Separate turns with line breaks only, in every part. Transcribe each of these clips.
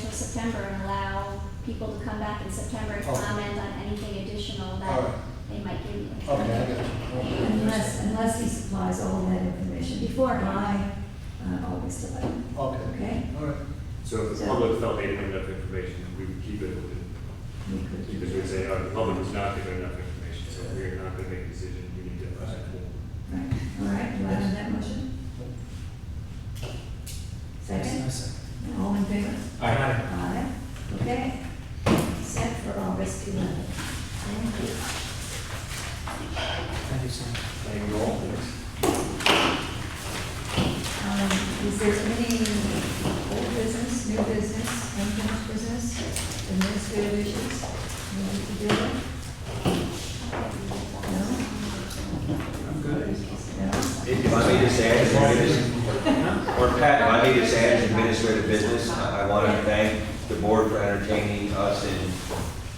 December and allow people to come back in September and
Okay.
comment on anything additional
Oh. All
that
right.
they might give you.
Okay, I got you.
Unless, unless he supplies all of that information before by uh, August 11th,
Okay, all
okay?
right.
So if the public felt they didn't have enough information, we would keep it open,
We could do
because
that.
we'd say, oh, the public was not given enough information, so we're not gonna make a decision, we need to.
Right. All right, do I have that motion? Second? All in favor?
Aye.
Aye. Okay. Set for August 11th. Thank you.
Thank you, Sam.
Thank you all.
Um, Is there any old business, new business, unfinished business, administrative issues? we need to deal with? No? No?
If I may just add, if I may just- or Pat, if I may just add as administrative business, I I want to thank the board for entertaining us and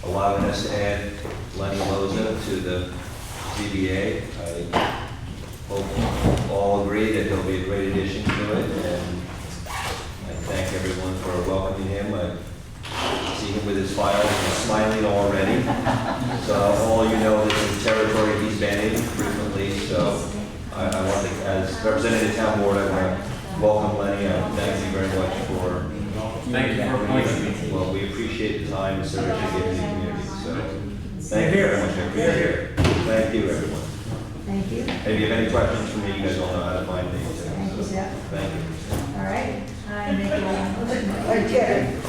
allowing us to add Lenny Loza to the ZBA. I hope all agree that he'll be a great addition to it, and I thank everyone for welcoming him. I see him with his files and smiling already. So all you know is the territory he's been in frequently, so I, I want to, as representative of town board, I want to welcome Lenny, I thank you very much for.
Thank you for appointing
Well, we appreciate the time and service you give to the community, so,
so.
thank you very much, I appreciate it. Thank you, everyone.
Thank you.
And If you have any questions for me, you guys all know how to find me,
Thank you,
too, so,
Jeff.
thank you.
All right. I make a motion. Okay.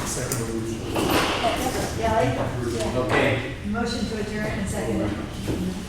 Kelly?
Okay.
Motion to adjourn and second.